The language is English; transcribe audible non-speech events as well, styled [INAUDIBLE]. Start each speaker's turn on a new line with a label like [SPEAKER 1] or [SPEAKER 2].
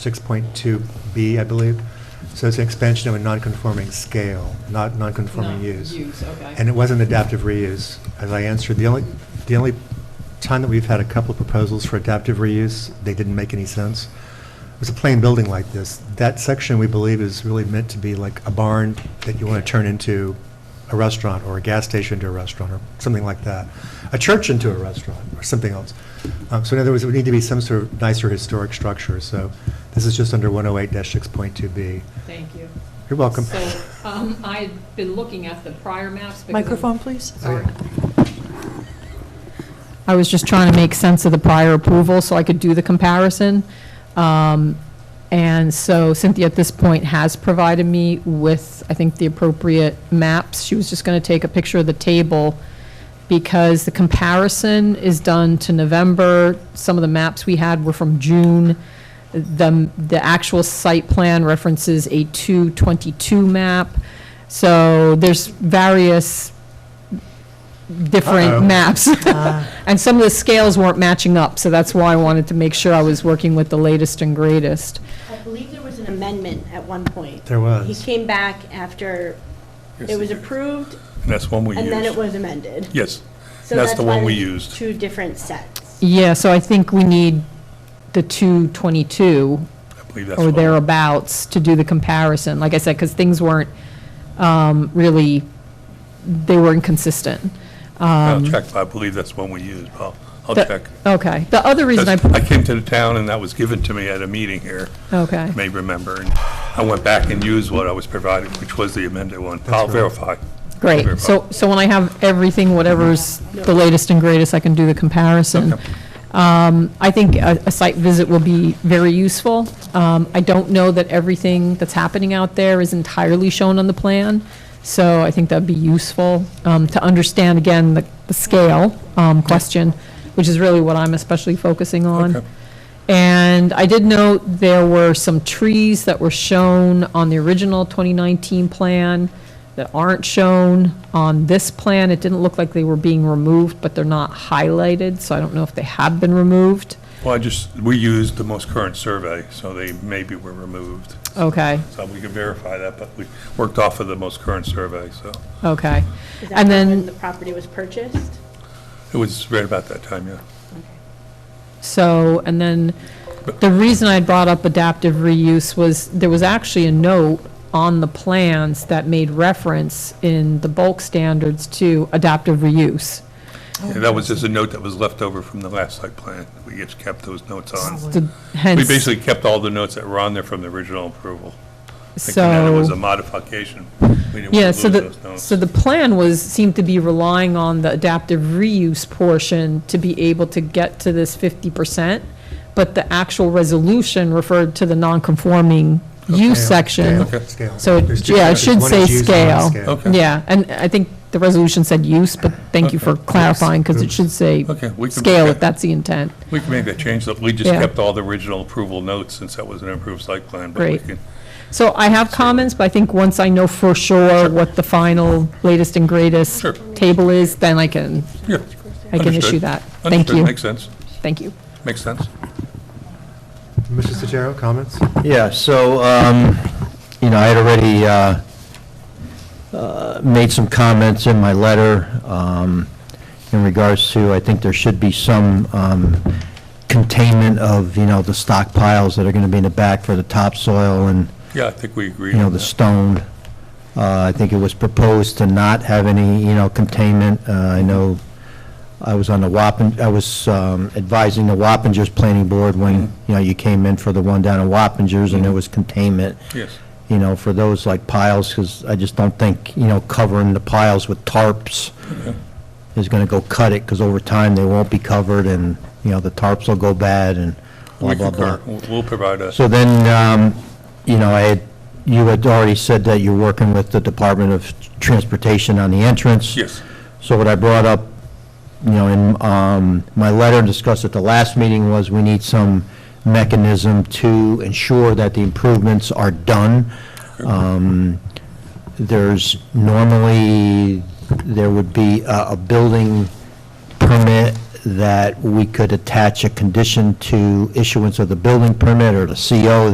[SPEAKER 1] 6.2B, I believe. So it's an expansion of a non-conforming scale, not non-conforming
[SPEAKER 2] Not
[SPEAKER 1] use.
[SPEAKER 2] Use, okay.
[SPEAKER 1] And it wasn't adaptive reuse, as I answered. The only, the only time that we've had a couple of proposals for adaptive reuse, they didn't make any sense. It was a plain building like this. That section, we believe, is really meant to be like a barn that you want to turn into a restaurant, or a gas station to a restaurant, or something like that. A church into a restaurant, or something else. Um, So in other words, it would need to be some sort of nicer historic structure, so this is just under 108-6.2B.
[SPEAKER 2] Thank you.
[SPEAKER 1] You're welcome.
[SPEAKER 2] So, um, I've been looking at the prior maps. because-
[SPEAKER 3] Microphone, please.
[SPEAKER 2] Sorry.
[SPEAKER 1] Oh,
[SPEAKER 4] I was just trying to make sense of the prior approval so I could do the comparison. Um, And so Cynthia, at this point, has provided me with, I think, the appropriate maps. She was just going to take a picture of the table because the comparison is done to November. Some of the maps we had were from June. The, the actual site plan references a 222 map. So there's various
[SPEAKER 1] Uh-oh.
[SPEAKER 4] different maps. [LAUGHS] And some of the scales weren't matching up, so that's why I wanted to make sure I was working with the latest and greatest.
[SPEAKER 5] I believe there was an amendment at one point.
[SPEAKER 1] There was.
[SPEAKER 5] He came back after it was approved,
[SPEAKER 6] And that's one we used.
[SPEAKER 5] and then it was amended.
[SPEAKER 6] Yes,
[SPEAKER 5] So
[SPEAKER 6] that's the
[SPEAKER 5] why
[SPEAKER 6] one we
[SPEAKER 5] there's
[SPEAKER 6] used.
[SPEAKER 5] Two different sets.
[SPEAKER 4] Yeah, so I think we need the 222
[SPEAKER 6] I believe that's.
[SPEAKER 4] or
[SPEAKER 6] what-
[SPEAKER 4] thereabouts to do the comparison, like I said, because things weren't um, really, they were inconsistent.
[SPEAKER 6] I'll check, I believe that's one we used, Paul. I'll
[SPEAKER 4] The-
[SPEAKER 6] check.
[SPEAKER 4] Okay, the other reason I,
[SPEAKER 6] 'Cause I came to the town and that was given to me at a meeting here,
[SPEAKER 4] okay,
[SPEAKER 6] you may remember. and I went back and used what I was provided, which was the amended one. I'll
[SPEAKER 1] right.
[SPEAKER 6] verify.
[SPEAKER 4] great. So, so when I have everything, whatever's the latest and greatest, I can do the comparison.
[SPEAKER 6] Okay.
[SPEAKER 4] Um, I think a, a site visit will be very useful. Um, I don't know that everything that's happening out there is entirely shown on the plan, so I think that'd be useful um, to understand, again, the, the scale um, question, which is really what I'm especially focusing on.
[SPEAKER 6] Okay.
[SPEAKER 4] And I did note there were some trees that were shown on the original 2019 plan that aren't shown on this plan. It didn't look like they were being removed, but they're not highlighted, so I don't know if they have been removed.
[SPEAKER 6] Well, I just, we used the most current survey, so they maybe were removed.
[SPEAKER 4] Okay,
[SPEAKER 6] So we could verify that, but we worked off of the most current survey, so
[SPEAKER 4] okay.
[SPEAKER 5] Is that
[SPEAKER 4] And
[SPEAKER 5] When
[SPEAKER 4] then,
[SPEAKER 5] the property was purchased?
[SPEAKER 6] it was right about that time, yeah.
[SPEAKER 4] so, and then, the reason I brought up adaptive reuse was, there was actually a note on the plans that made reference in the bulk standards to adaptive reuse.
[SPEAKER 6] And that was just a note that was left over from the last site plan. We just kept those notes on.
[SPEAKER 4] The-
[SPEAKER 6] We
[SPEAKER 4] Hence,
[SPEAKER 6] basically kept all the notes that were on there from the original approval. Thinking that it was a
[SPEAKER 4] so,
[SPEAKER 6] modification. We didn't
[SPEAKER 4] yeah,
[SPEAKER 6] want to
[SPEAKER 4] so
[SPEAKER 6] lose those
[SPEAKER 4] the,
[SPEAKER 6] notes.
[SPEAKER 4] so the plan was, seemed to be relying on the adaptive reuse portion to be able to get to this fifty percent, but the actual resolution referred to the non-conforming use section.
[SPEAKER 6] Okay.
[SPEAKER 1] Scale.
[SPEAKER 4] So it-
[SPEAKER 1] There's two
[SPEAKER 4] yeah, it
[SPEAKER 1] sections.
[SPEAKER 4] should
[SPEAKER 1] One
[SPEAKER 4] say
[SPEAKER 1] is use and one is
[SPEAKER 4] scale.
[SPEAKER 6] Okay.
[SPEAKER 4] Yeah, and I think the resolution said use, but thank you for
[SPEAKER 6] Okay.
[SPEAKER 4] clarifying, because it should say
[SPEAKER 6] Okay, we can-
[SPEAKER 4] scale if that's the intent.
[SPEAKER 6] We can make that change. Look, We just
[SPEAKER 4] Yeah.
[SPEAKER 6] kept all the original approval notes since that was an improved site plan. but we
[SPEAKER 4] Great.
[SPEAKER 6] can-
[SPEAKER 4] So I have comments, but I think once I know for sure what the final latest and greatest
[SPEAKER 6] Sure.
[SPEAKER 4] table is, then I can,
[SPEAKER 6] Yeah.
[SPEAKER 4] I can issue
[SPEAKER 6] understood.
[SPEAKER 4] that. Thank
[SPEAKER 6] Understood.
[SPEAKER 4] you.
[SPEAKER 6] Makes sense.
[SPEAKER 4] Thank you.
[SPEAKER 6] Makes sense.
[SPEAKER 1] Mr. Sotero, comments?
[SPEAKER 7] Yeah, so, um, you know, I had already uh, uh, made some comments in my letter um, in regards to, I think there should be some um, containment of, you know, the stockpiles that are going to be in the back for the topsoil and,
[SPEAKER 6] Yeah, I think we agree.
[SPEAKER 7] you know,
[SPEAKER 6] on
[SPEAKER 7] the
[SPEAKER 6] that.
[SPEAKER 7] stone. Uh, I think it was proposed to not have any, you know, containment. Uh, I know I was on the Wappin, I was um, advising the Wappingers Planning Board when, you know, you came in for the one down in Wappingers, and there was containment,
[SPEAKER 6] Yes.
[SPEAKER 7] you know, for those like piles, because I just don't think, you know, covering the piles with tarps is going to go cut it, because over time, they won't be covered, and, you know, the tarps will go bad, and blah,
[SPEAKER 6] We
[SPEAKER 7] blah, blah.
[SPEAKER 6] concur. We'll- We'll provide a,
[SPEAKER 7] So then, um, you know, I had, you had already said that you're working with the Department of Transportation on the entrance.
[SPEAKER 6] yes.
[SPEAKER 7] So what I brought up, you know, in um, my letter and discussed at the last meeting was we need some mechanism to ensure that the improvements are done. Um, There's normally, there would be a a building permit that we could attach a condition to issuance of the building permit or the CO